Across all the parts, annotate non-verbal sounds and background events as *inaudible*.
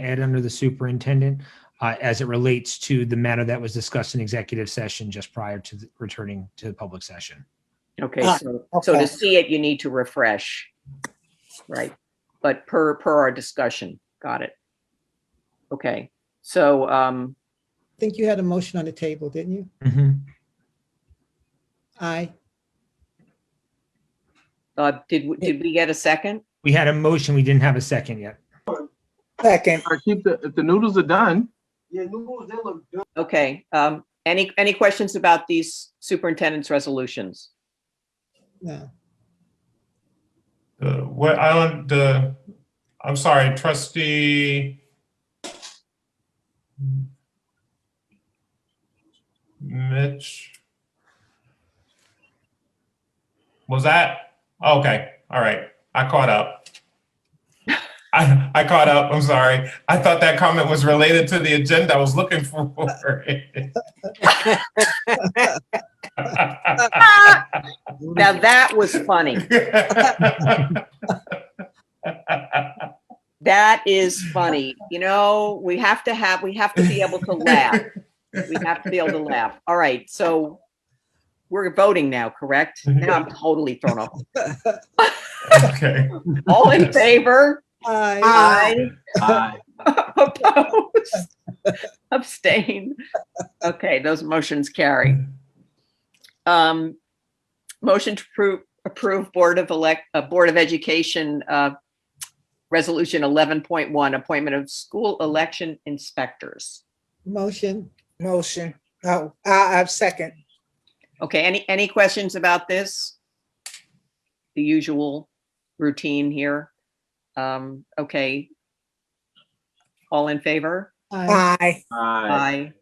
add under the superintendent uh, as it relates to the matter that was discussed in executive session just prior to the- returning to the public session. Okay, Ah, so, so okay. to see it, you need to refresh. Right, but per, per our discussion, got it. Okay, so, um, I think you had a motion on the table, didn't you? Mhm. Aye. uh, did, w- did we get a second? We had a motion, we didn't have a second yet. Second. I keep the, if the noodles are done, Yeah, noodles, they look good. Okay, um, any, any questions about these superintendent's resolutions? No. Uh, What island, uh, I'm sorry, trustee. Mitch. Was that? Okay, all right. I caught up. I, I caught up. I'm sorry. I thought that comment was related to the agenda I was looking for. *laughs* Now that was funny. That is funny. You know, we have to have, we have to be able to laugh. We have to be able to laugh. All right, so we're voting now, correct? Now I'm totally thrown off. *laughs* Okay. All in favor? Aye. Aye. *laughs* Opposed? Abstain? Okay, those motions carry. Um, motion to approve, approve Board of Elect, uh, Board of Education, uh, Resolution eleven point one, appointment of school election inspectors. Motion. Motion. Oh, I, I second. Okay, any, any questions about this? The usual routine here. Um, okay. All in favor? Aye. Aye. Aye. Aye.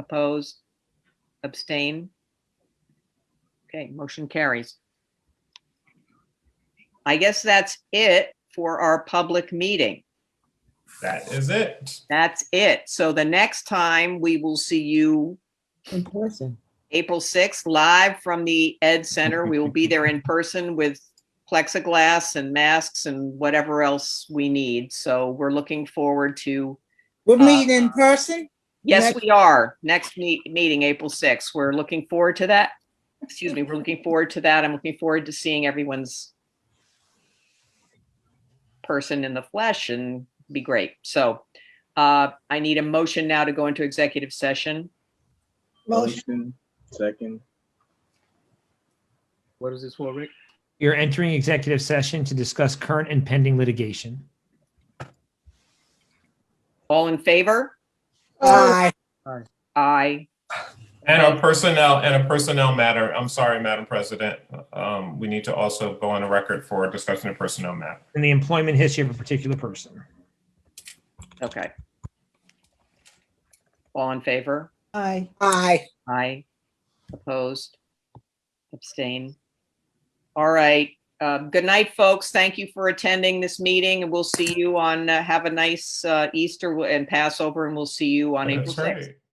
Opposed? Abstain? Okay, motion carries. I guess that's it for our public meeting. That is it. That's it. So the next time we will see you In person. April 6th, live from the Ed Center. We will be there in person with plexiglass and masks and whatever else we need. So we're looking forward to, We're meeting in person? yes, Next- we are. Next meet, meeting, April 6th. We're looking forward to that. Excuse me, we're looking forward to that. I'm looking forward to seeing everyone's person in the flesh and be great. So uh, I need a motion now to go into executive session. Motion. Second. what is this for, Rick? You're entering executive session to discuss current and pending litigation. All in favor? Aye. Aye. And a personnel, and a personnel matter, I'm sorry, Madam President, um, we need to also go on a record for discussing a personnel matter. And the employment history of a particular person. Okay. All in favor? Aye. Aye. Aye. Opposed? Abstain? All right. Um, Good night, folks. Thank you for attending this meeting and we'll see you on, uh, have a nice uh, Easter and Passover and we'll see you on April That's 6th. right.